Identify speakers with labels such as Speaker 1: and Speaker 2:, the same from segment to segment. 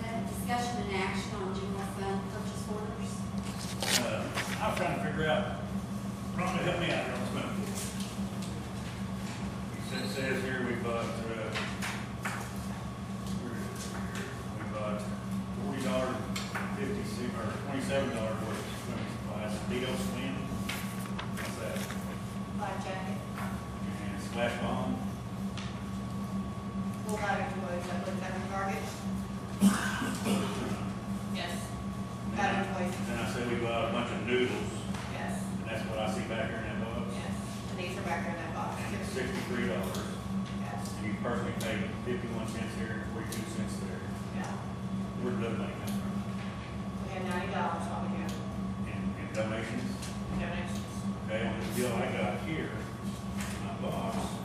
Speaker 1: discussion and action on general fund purchase orders.
Speaker 2: Uh, I'm trying to figure out, Rhonda, help me out here on something. It says- says here we bought, uh, we bought forty dollars fifty six, or twenty-seven dollars worth of swimming supplies, Leo swim. What's that?
Speaker 3: Black jacket,
Speaker 2: And splash bomb,
Speaker 3: full body toys, I looked at the target. Yes. Body toys,
Speaker 2: and then I said we bought a bunch of noodles,
Speaker 3: yes,
Speaker 2: and that's what I see back here in that box,
Speaker 3: yes. And these are back there in that box. Yes.
Speaker 2: sixty-three dollars, and you personally paid fifty-one cents here and forty-two cents there.
Speaker 3: Yeah.
Speaker 2: Where did that money come from?
Speaker 3: We had ninety dollars over here,
Speaker 2: and, and donations.
Speaker 3: in donations.
Speaker 2: Okay, on the bill I got here, my box,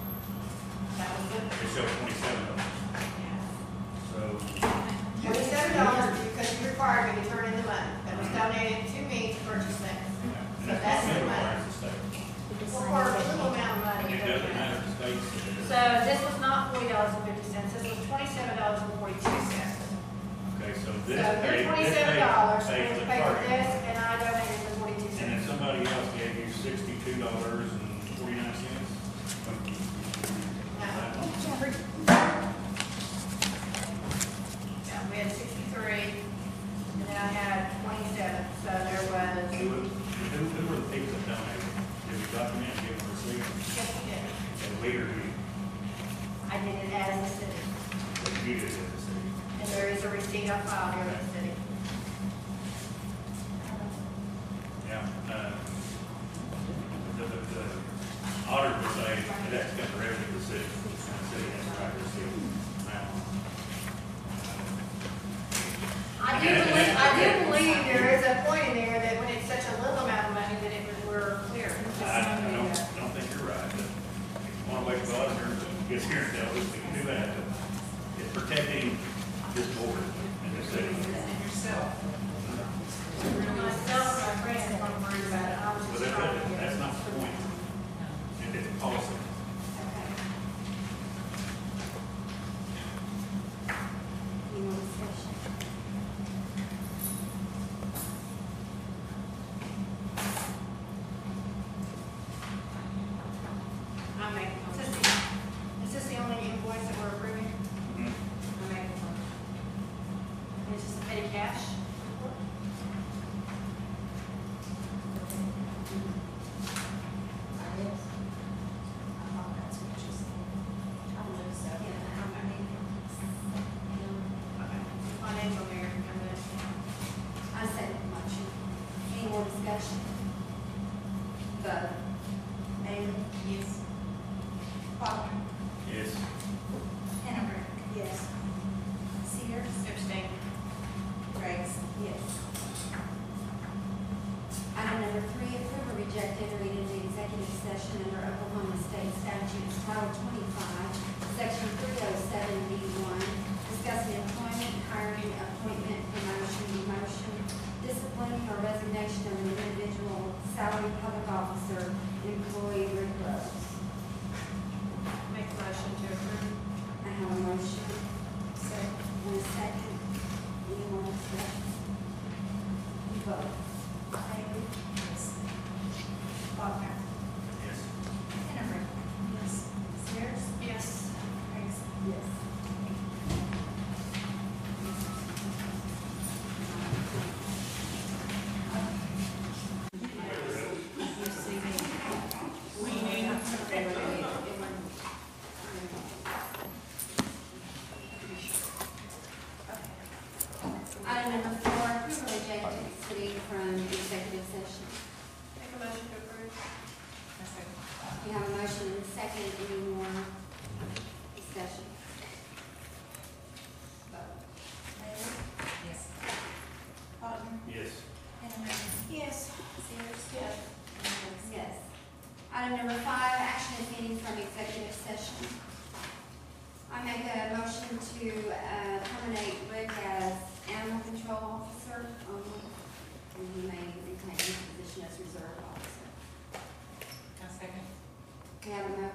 Speaker 3: That was
Speaker 2: it
Speaker 3: good,
Speaker 2: shows twenty-seven dollars.
Speaker 3: yes.
Speaker 2: So,
Speaker 3: Twenty-seven dollars because you required me to turn in the money that was donated to me to purchase things.
Speaker 2: yeah, and
Speaker 3: So that's
Speaker 2: that's not
Speaker 3: the
Speaker 2: middle
Speaker 3: money.
Speaker 2: part of the state.
Speaker 3: Well, for a little
Speaker 2: And
Speaker 3: amount of money.
Speaker 2: it doesn't matter if the state says,
Speaker 3: So this was not forty dollars and fifty cents, this was twenty-seven dollars and forty-two cents.
Speaker 2: okay, so
Speaker 3: So
Speaker 2: this paid,
Speaker 3: your
Speaker 2: this
Speaker 3: twenty-seven
Speaker 2: paid,
Speaker 3: dollars,
Speaker 2: paid
Speaker 3: was
Speaker 2: the
Speaker 3: paid for
Speaker 2: target.
Speaker 3: this, and I donated the forty-two
Speaker 2: And then
Speaker 3: cents.
Speaker 2: somebody else gave you sixty-two dollars and forty-nine
Speaker 3: No.
Speaker 2: cents.
Speaker 3: Yeah, we had sixty-three, and then I had twenty-seven, so there
Speaker 2: Who,
Speaker 3: was,
Speaker 2: who, who were the people that donated? Did we document, give them a receipt,
Speaker 3: yes, we did.
Speaker 2: and later we,
Speaker 3: I did it as a city,
Speaker 2: we did it as a city?
Speaker 3: and there is a receipt on file here in the city.
Speaker 2: Yeah, uh, the, the, the auditor would say, it has to come from revenue to the city, and the city has to write the city now.
Speaker 3: I do believe, I do believe there is a point in there that when it's such a little amount of money that it was, we're clear. It's just
Speaker 2: I, I
Speaker 3: something
Speaker 2: don't,
Speaker 3: that-
Speaker 2: I don't think you're right, but if you wanna wait for the auditor to get here and tell us, we can do that, but it's protecting this board and this city.
Speaker 3: And yourself. Myself, my friends, I'm worried about it, I was
Speaker 2: But
Speaker 3: just
Speaker 2: that,
Speaker 3: trying to
Speaker 2: that-
Speaker 3: get.
Speaker 2: that's not the point, It- it's a policy.
Speaker 3: Okay.
Speaker 1: Any more discussion?
Speaker 3: I make, a motion. is this, the- is this the only invoice that we're approving?
Speaker 2: Mm-hmm.
Speaker 3: I make a motion. And It's just petty cash?
Speaker 1: Yeah, I mean,
Speaker 3: Okay. Financial mayor, I'm gonna,
Speaker 1: I said much. Any more discussion? Vote. Bailey? Yes. Potter?
Speaker 2: Yes,
Speaker 1: Hannaford? Yes. Sears?
Speaker 3: abstain.
Speaker 1: Graves? Yes. Item number three, approve or reject entering into executive session under Oklahoma State Statutes Title twenty-five, Section three oh seven B one, discussing employment, hiring, appointment, promotion, demotion, disciplining or resignation of an individual, salary public officer, and employee Rick Rose.
Speaker 3: Make a motion to approve.
Speaker 1: I have a motion. Second. And a second. Any more discussion? You vote. Bailey? Yes. Faulkner?
Speaker 2: yes.
Speaker 1: Hannaford? Yes. Sears?
Speaker 3: Yes.
Speaker 1: Price? Yes. Item number four, approval of agenda city from executive session.
Speaker 3: Make a motion to approve. second.
Speaker 1: You have a motion and a second, any more discussion? Vote.
Speaker 3: Yes.
Speaker 2: Yes.
Speaker 3: Yes. Sears? Yes.
Speaker 1: Yes. Item number five, action if any from executive session. I make a motion to uh, terminate Rick as animal control officer only, and he may retain his position as reserve officer.
Speaker 3: second.
Speaker 1: We have a motion